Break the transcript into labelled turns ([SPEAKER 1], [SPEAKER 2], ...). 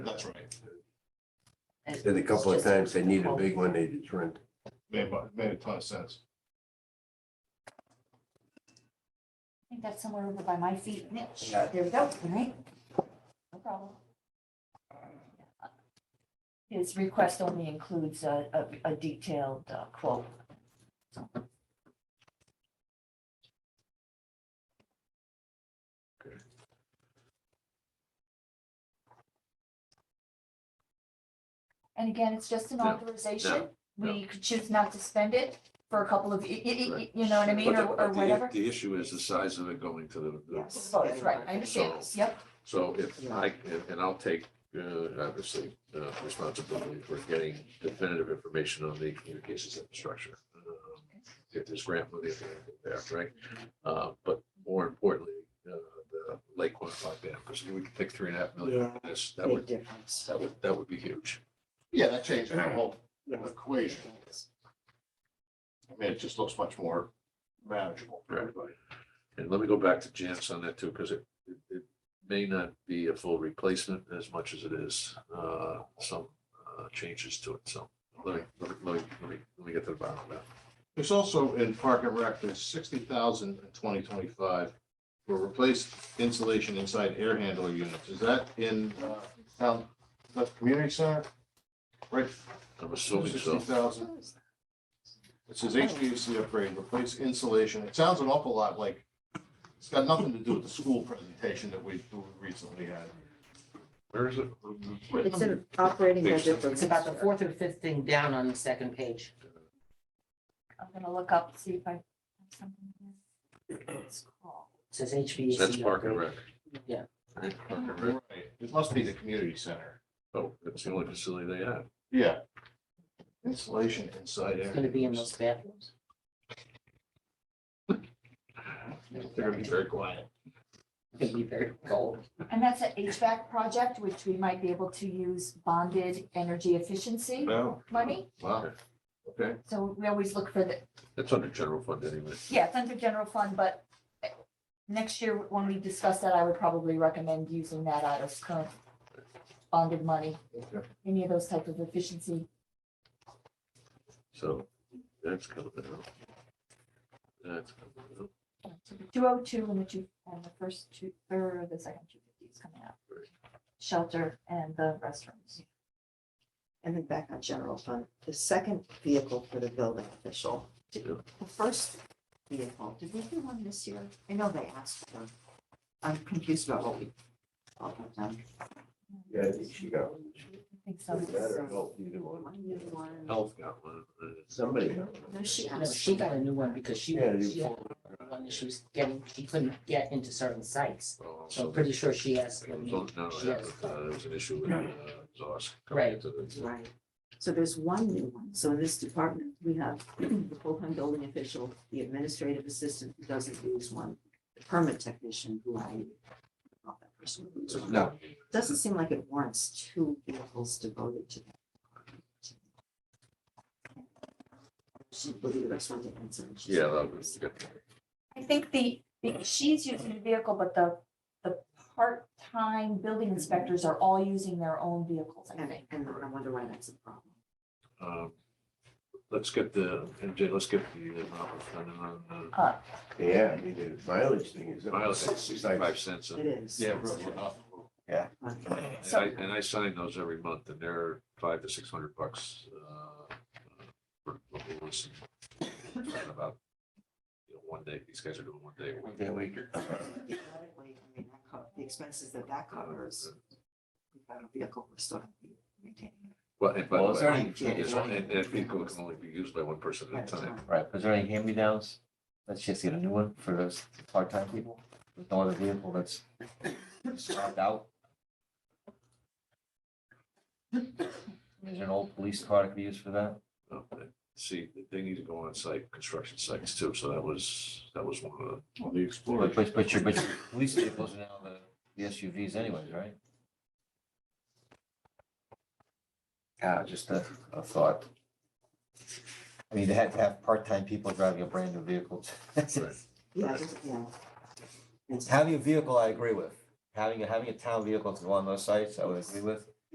[SPEAKER 1] That's right.
[SPEAKER 2] And a couple of times they need a big one, they just rent.
[SPEAKER 1] Made, mu- made a ton of sense.
[SPEAKER 3] I think that's somewhere over by my feet. Mitch.
[SPEAKER 2] Yeah.
[SPEAKER 3] There we go, all right? No problem. His request only includes a, a, a detailed uh, quote. And again, it's just an
[SPEAKER 2] No,
[SPEAKER 3] authorization. We could choose not to spend it for a couple of, y- y- y- y- you know what I mean,
[SPEAKER 4] But
[SPEAKER 3] or,
[SPEAKER 4] the-
[SPEAKER 3] or
[SPEAKER 4] but the-
[SPEAKER 3] whatever.
[SPEAKER 4] The issue is the size of it going to the-
[SPEAKER 3] Yes,
[SPEAKER 4] the,
[SPEAKER 3] both, right, I understand this, yep,
[SPEAKER 4] so if I, and- and I'll take, uh, obviously, uh, responsibility for getting definitive information on the communications infrastructure. Um, If there's grant money available there, right? Uh, But more importantly, uh, the Lake Quantified Dam, because we could pick three and a half million,
[SPEAKER 5] Yeah.
[SPEAKER 4] for this, that
[SPEAKER 5] Big
[SPEAKER 4] would,
[SPEAKER 5] difference.
[SPEAKER 4] that would, that would be huge.
[SPEAKER 1] Yeah, that changes the whole
[SPEAKER 5] Yeah.
[SPEAKER 1] equation. I mean, it just looks much more manageable. for
[SPEAKER 4] Right.
[SPEAKER 1] everybody.
[SPEAKER 4] And let me go back to Janice on that too, because it, it, it may not be a full replacement as much as it is, uh, some, uh, changes to it, so. Let me, let me, let me, let me, let me get to the bottom of that.
[SPEAKER 1] There's also in Park and Rec, there's sixty thousand in twenty twenty-five for replaced insulation inside air handler units. Is that in, uh, town, the community center? Right,
[SPEAKER 4] I'm assuming
[SPEAKER 1] sixty
[SPEAKER 4] so.
[SPEAKER 1] thousand. It says HVAC upgrade, replace insulation. It sounds an awful lot like, it's got nothing to do with the school presentation that we we recently had.
[SPEAKER 4] Where is it?
[SPEAKER 6] It's an operating budget.
[SPEAKER 5] It's about the fourth or fifth thing down on the second page.
[SPEAKER 3] I'm gonna look up, see if I. have something here. It's called-
[SPEAKER 5] It Says HVAC.
[SPEAKER 4] That's Park and
[SPEAKER 5] upgrade.
[SPEAKER 4] Rec.
[SPEAKER 5] Yeah.
[SPEAKER 4] Park and Rec.
[SPEAKER 1] Right, it must be the community center.
[SPEAKER 4] Oh, that's the only facility they have.
[SPEAKER 1] Yeah. Insulation inside.
[SPEAKER 5] It's gonna be in those bathrooms.
[SPEAKER 1] They're gonna be very quiet.
[SPEAKER 5] It'd be very cold.
[SPEAKER 3] And that's an HVAC project, which we might be able to use bonded energy efficiency
[SPEAKER 1] No.
[SPEAKER 3] money.
[SPEAKER 1] Oh, Wow, okay.
[SPEAKER 3] So we always look for the,
[SPEAKER 4] That's under general fund anyway.
[SPEAKER 3] yeah, it's under general fund, but next year, when we discuss that, I would probably recommend using that out of current bonded money,
[SPEAKER 1] okay.
[SPEAKER 3] any of those type of efficiency.
[SPEAKER 4] So that's coming out. That's coming out.
[SPEAKER 3] Two oh two and the two, and the first two, or the second two fifty is coming out. Shelter and the restrooms.
[SPEAKER 6] And then back on general fund, the second vehicle for the building official. Did-
[SPEAKER 4] Yeah.
[SPEAKER 6] The first vehicle, did we do one this year? I know they asked for. I'm confused about what we. all got done.
[SPEAKER 2] Yeah, I think she got,
[SPEAKER 3] I think so.
[SPEAKER 2] doesn't matter, help either one.
[SPEAKER 6] One new one.
[SPEAKER 4] Health got one. uh,
[SPEAKER 2] Somebody. got
[SPEAKER 6] No, she
[SPEAKER 5] No,
[SPEAKER 6] asked.
[SPEAKER 5] she got a new one because she,
[SPEAKER 2] Yeah, you-
[SPEAKER 5] she had one that she was getting, she couldn't get into certain sites.
[SPEAKER 4] oh,
[SPEAKER 5] So
[SPEAKER 4] so
[SPEAKER 5] I'm pretty sure she asked.
[SPEAKER 4] It
[SPEAKER 5] when
[SPEAKER 4] was
[SPEAKER 5] we-
[SPEAKER 4] on- No,
[SPEAKER 5] she
[SPEAKER 4] that
[SPEAKER 5] asked.
[SPEAKER 4] was, uh, there was an issue with uh, exhaust. coming
[SPEAKER 5] Right.
[SPEAKER 4] into the-
[SPEAKER 6] Right. So there's one new one. So in this department, we have the full-time building official, the administrative assistant who doesn't use one, the permit technician who I not that person who uses one.
[SPEAKER 2] No.
[SPEAKER 6] Doesn't seem like it warrants two vehicles devoted to that. She believe the rest one to answer. She's-
[SPEAKER 4] Yeah, that was good.
[SPEAKER 3] I think the, the- she's using the vehicle, but the, the part-time building inspectors are all using their own vehicles, I
[SPEAKER 6] And,
[SPEAKER 3] think.
[SPEAKER 6] and I wonder why that's a problem.
[SPEAKER 4] Um, Let's get the, MJ, let's get the, uh,
[SPEAKER 2] Yeah, I mean, the mileage thing is.
[SPEAKER 4] uh, miles at sixty-five cents.
[SPEAKER 6] It
[SPEAKER 4] And
[SPEAKER 6] is.
[SPEAKER 1] really, we're not-
[SPEAKER 6] Okay.
[SPEAKER 4] and I, and I sign those every month and they're five to six hundred bucks. uh, for local ones. About you know, One day, these guys are doing one day. a week.
[SPEAKER 6] Theoretically, I mean, that co- The expenses that that covers, without a vehicle, we're still gonna be maintaining. it.
[SPEAKER 4] Well, and by the
[SPEAKER 7] Well, is there
[SPEAKER 4] way,
[SPEAKER 6] any-
[SPEAKER 4] it's- and that vehicle can only be used by one person
[SPEAKER 6] At a
[SPEAKER 4] at a time.
[SPEAKER 7] Right, is there any hand-me-downs? Let's just get a new one for those part-time people, There's no other vehicle that's scrapped out. Is there an old police car that could be used for that?
[SPEAKER 4] Um, and See, they need to go on site, construction sites too, so that was, that was one of
[SPEAKER 1] Well, the Explorer.
[SPEAKER 7] But, but, but your, but your police vehicles are now the, the SUVs anyways, right? Yeah, Ah, just a, a thought. I mean, they had to have part-time people driving a brand-new vehicle.
[SPEAKER 4] Right.
[SPEAKER 6] Yeah, just, yeah. It's-
[SPEAKER 7] Having a vehicle, I agree with. Having, a- having a town vehicle to go on those sites, I would agree with.